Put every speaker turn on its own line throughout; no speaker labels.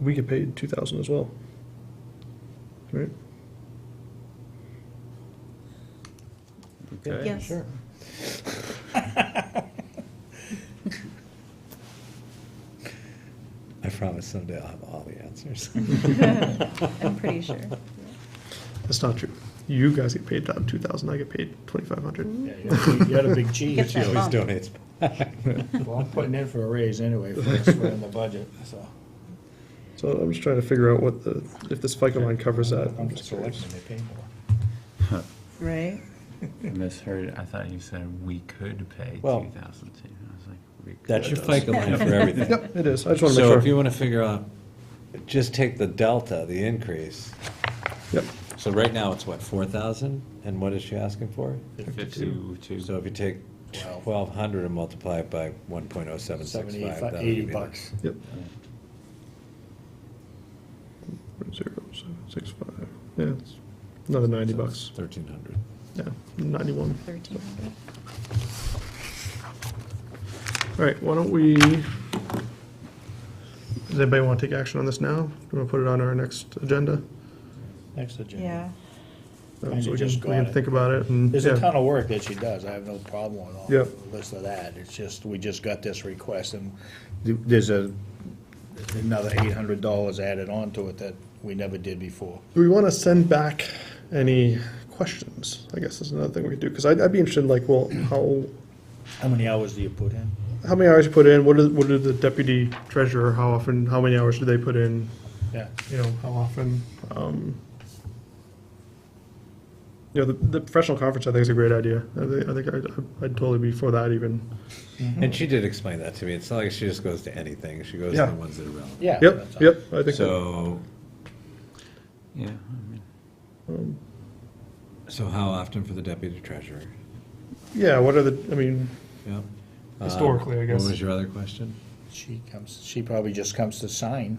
We get paid two thousand as well. Right?
Okay.
Yes.
Sure. I promise someday I'll have all the answers.
I'm pretty sure.
That's not true. You guys get paid about two thousand, I get paid twenty-five hundred.
Yeah, You had a big- you had a big
Get
cheese.
that
Well,
Yeah.
I'm
bump.
always
Mom.
donates. putting in for a raise anyway, for us, we're in the budget, so.
So I'm just trying to figure out what the, if this FICA line covers that. I'm
I'm
just
just
curious.
selecting, they pay more.
Right?
Misheard, I thought you said we could pay
Well,
two thousand two. I was like, we could.
That's your FICA line for everything.
Yep, it is. I just wanna
So
make
if you
sure.
want to figure out, just take the delta, the increase.
Yep,
So right now, it's what, 4,000? And what is she asking for?
Fifty-two, two.
So if you take 1,200 and multiply it by 1.0765, that'll give you the-
yep. Zero, seven, six, five. Yeah, it's another ninety
so it's
bucks.
1,300.
Yeah, ninety-one.
1,300.
All right, why don't we, does anybody want to take action on this now? Do we want to put it on our next agenda?
Next agenda.
Yeah.
Um,
Kinda
So we can,
just
we can
got it.
think about it and,
There's a
yeah,
ton of work that she does, I have no problem with all
Yeah.
the list of that, it's just, we just got this request, and th- there's a, another eight hundred dollars added on to it that we never did before.
do we want to send back any questions? I guess is another thing we could do, because I'd, I'd be interested in like, well, how,
How many hours do you put in?
how many hours you put in? What did, what did the deputy treasurer, how often, how many hours do they put in?
Yeah,
You know, how often? um, You know, the, the professional conference, I think, is a great idea. I think, I think I'd- I'd totally be for that even.
And she did explain that to me. It's not like she just goes to anything. She goes to
Yeah.
the ones that are relevant.
yeah.
Yep,
that's all.
yep, I think, that-
So,
Yeah, I mean,
so how often for the deputy treasurer?
yeah, what are the, I mean,
Yep.
Historically, I
Um,
guess.
uh, What was your other question?
She comes, she probably just comes to sign,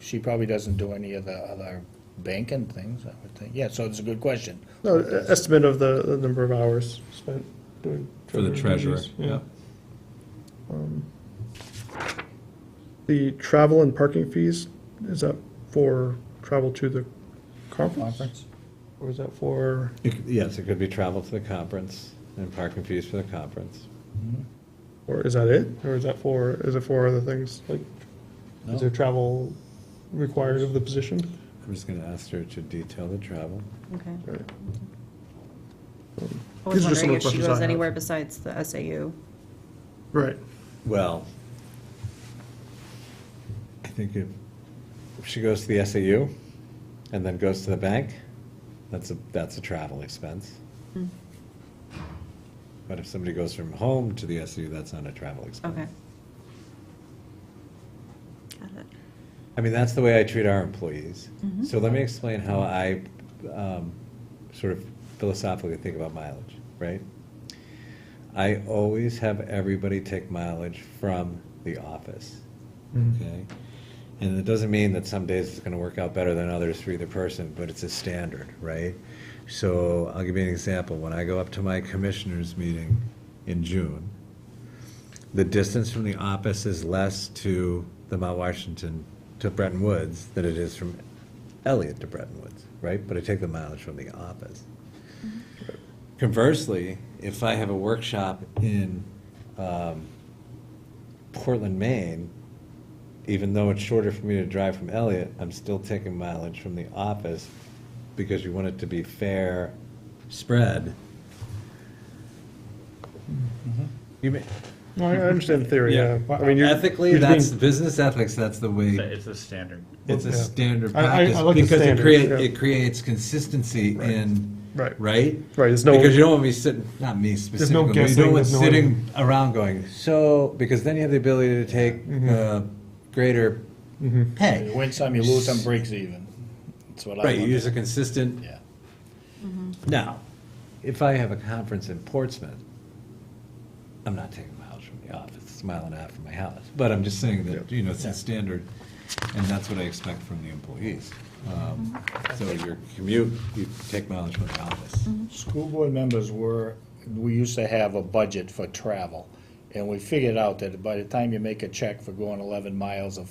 she probably doesn't do any of the other banking things, I would think, yeah, so it's a good question.
No, e- estimate of the, the number of hours spent doing.
For the treasurer,
duties,
yeah.
The travel and parking fees, is that for travel to the conference?
Conference?
Or is that for,
It c- Yes, it could be travel to the conference and parking fees for the conference.
or is that it? Or is that for, is it for other things? Like,
No.
is there travel required of the position?
I'm just gonna ask her to detail the travel.
Okay.
Right.
I
These
was
are just some of
wondering
the
if she
questions I
goes
have.
anywhere besides the SAU.
Right.
Well, I think if, if she goes to the SAU and then goes to the bank, that's a, that's a travel expense.
Hmm.
But if somebody goes from home to the SAU, that's not a travel expense.
Okay. Got it.
I mean, that's the way I treat our employees. So let me explain how I um, sort of philosophically think about mileage, right? I always have everybody take mileage from the office,
Mm-hmm.
okay? And it doesn't mean that some days it's going to work out better than others for either person, but it's a standard, right? So I'll give you an example. When I go up to my commissioners' meeting in June, the distance from the office is less to the Mount Washington to Bretton Woods than it is from Elliott to Bretton Woods, right? But I take the mileage from the office. Conversely, if I have a workshop in um, Portland, Maine, even though it's shorter for me to drive from Elliott, I'm still taking mileage from the office because you want it to be fair spread. You may,
No, I I understand the theory, yeah.
Yeah.
I mean, you're-
Ethically,
you're
that's,
being-
business ethics, that's the
it's a-
way,
it's a standard.
it's a
Yeah.
standard
I- I- I
practice.
like the
Because it
standards,
create,
yeah.
it creates consistency in,
Right.
right?
Right, there's no-
Because you don't want to be sitting, not me
no
specifically, but you
guessing,
don't want
there's no-
sitting around going, so, because then you have the ability to take
Mm-hmm.
uh, greater
You
pay.
win some, you lose some, breaks even, that's what I
Right, you
wonder.
use a consistent,
Yeah.
now, if I have a conference in Portsmouth, I'm not taking miles from the office, it's a mile and a half from my house, but I'm just saying that, you know, it's a standard, and that's what I expect from the employees. Um, So your commute, you take mileage from the office.
School board members were, we used to have a budget for travel, and we figured out that by the time you make a check for going eleven miles of